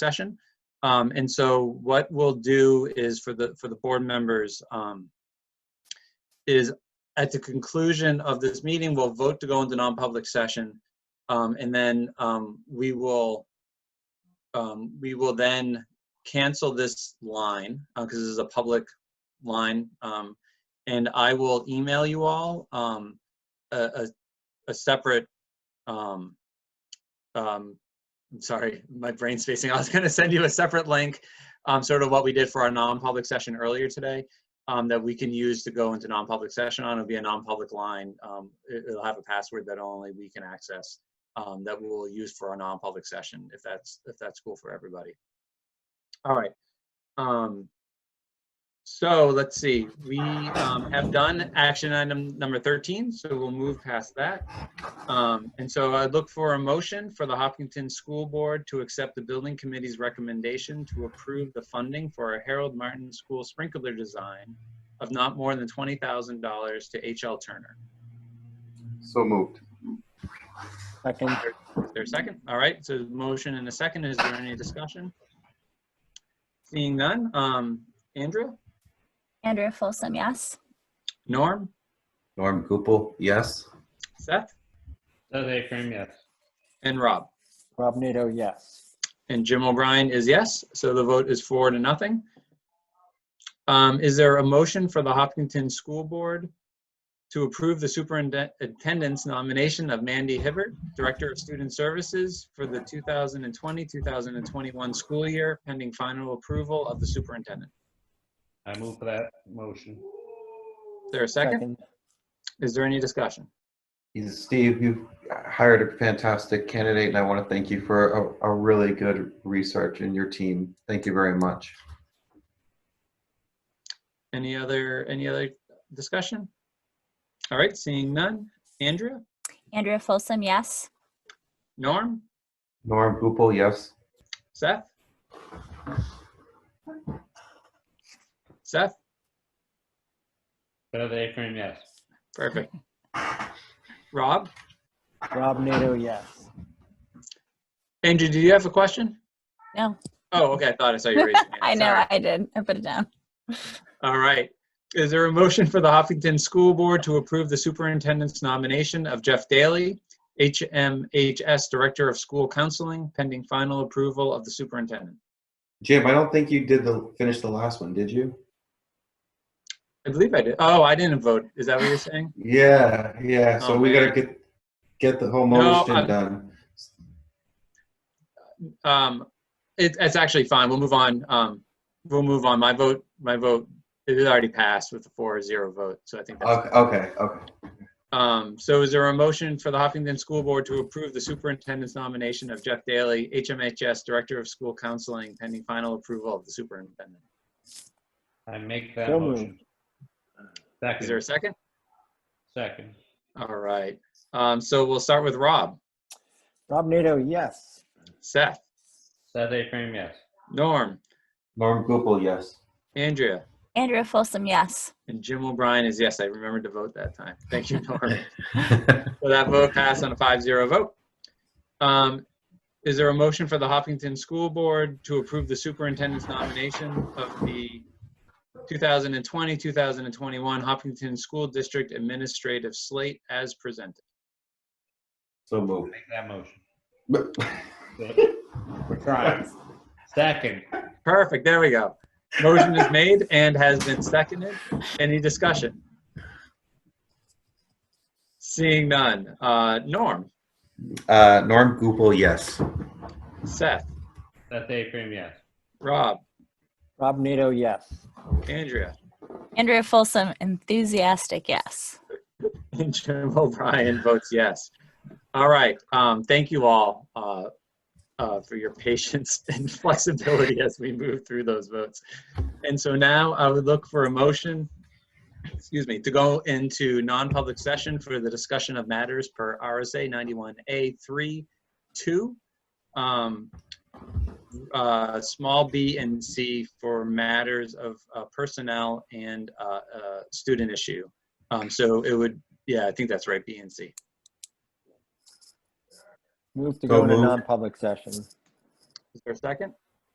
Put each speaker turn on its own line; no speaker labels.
session. Um, and so what we'll do is for the, for the board members, um, is at the conclusion of this meeting, we'll vote to go into non-public session. Um, and then, um, we will, um, we will then cancel this line, uh, cause this is a public line. Um, and I will email you all, um, a, a, a separate, um, um, I'm sorry, my brain spacing. I was going to send you a separate link, um, sort of what we did for our non-public session earlier today, um, that we can use to go into non-public session on. It'll be a non-public line. Um, it, will have a password that only we can access. Um, that we'll use for our non-public session, if that's if that's cool for everybody. All right. Um, so let's see. We um, have done action item number 13, so we'll move past that. Um, And so I look for a motion for the Hopkinton School Board to accept the building committee's recommendation to approve the funding for a Harold Martin School sprinkler design of not more than $20,000 to H.L. Turner.
So moved.
Second,
Is there a second? All right, so motion and a second. Is there any discussion? Seeing none. Um, Andrew?
Andrea Folsom, yes.
Norm?
Norm Gupel, yes.
Seth?
Seth Akram, yes.
And Rob?
Rob Nato, yes.
And Jim O'Brien is yes, so the vote is four to nothing. Um, Is there a motion for the Hopkinton School Board to approve the superintendent's nomination of Mandy Hibbert, Director of Student Services for the 2020-2021 school year pending final approval of the superintendent?
I move for that motion.
Is there a second? Is there any discussion?
Steve, you hired a fantastic candidate, and I want to thank you for a, a really good research and your team. Thank you very much.
Any other, any other discussion? All right, seeing none. Andrea?
Andrea Folsom, yes.
Norm?
Norm Gupel, yes.
Seth? Seth?
Seth Akram, yes.
Perfect. Rob?
Rob Nato, yes.
Andrew, do you have a question?
No,
Oh, okay. I thought I saw you raise your hand.
I know
Sorry.
I did. I put it down.
All right. Is there a motion for the Hopkinton School Board to approve the superintendent's nomination of Jeff Daly, HMHS Director of School Counseling, pending final approval of the superintendent?
Jim, I don't think you did the finish the last one, did you?
I believe I did. Oh, I didn't vote. Is that what you're saying?
Yeah, yeah. So
Oh,
we gotta
man.
get get the whole
No,
motion
I'm-
done.
Um, it, it's actually fine. We'll move on. Um, we'll move on. My vote, my vote, it had already passed with a four zero vote. So I think that's
Okay, okay, okay.
Um, so is there a motion for the Hopkinton School Board to approve the superintendent's nomination of Jeff Daly, HMHS Director of School Counseling, pending final approval of the superintendent?
I make that
So
motion.
Is there a
Second,
second?
second.
All right. Um, so we'll start with Rob,
Rob Nato, yes.
Seth,
Seth Akram, yes.
Norm,
Norm Gupel, yes.
Andrea,
Andrea Folsom, yes.
and Jim O'Brien is yes. I remembered to vote that time. Thank you, Norm. So that vote passed on a 5-0 vote. Um, Is there a motion for the Hopkinton School Board to approve the superintendent's nomination of the 2020-2021 Hopkinton School District Administrative Slate as presented?
so moved.
Make that motion. We're trying. Second,
Perfect, there we go. Motion is made and has been seconded. Any discussion? Seeing none. Uh, Norm,
Uh, Norm Gupel, yes.
Seth,
Seth Akram, yes.
Rob,
Rob Nato, yes.
Andrea,
Andrea Folsom, enthusiastic, yes.
And Jim O'Brien votes yes. All right, um, thank you all, uh, uh, for your patience and flexibility as we move through those votes. And so now I would look for a motion, excuse me, to go into non-public session for the discussion of matters per RSA ninety-one A three, two. Um, uh, small b and c for matters of uh, personnel and, uh, uh, student issue. Um, so it would yeah, I think that's right, B and C.
Move
So
to go into
moved.
non-public session.
Is there a second?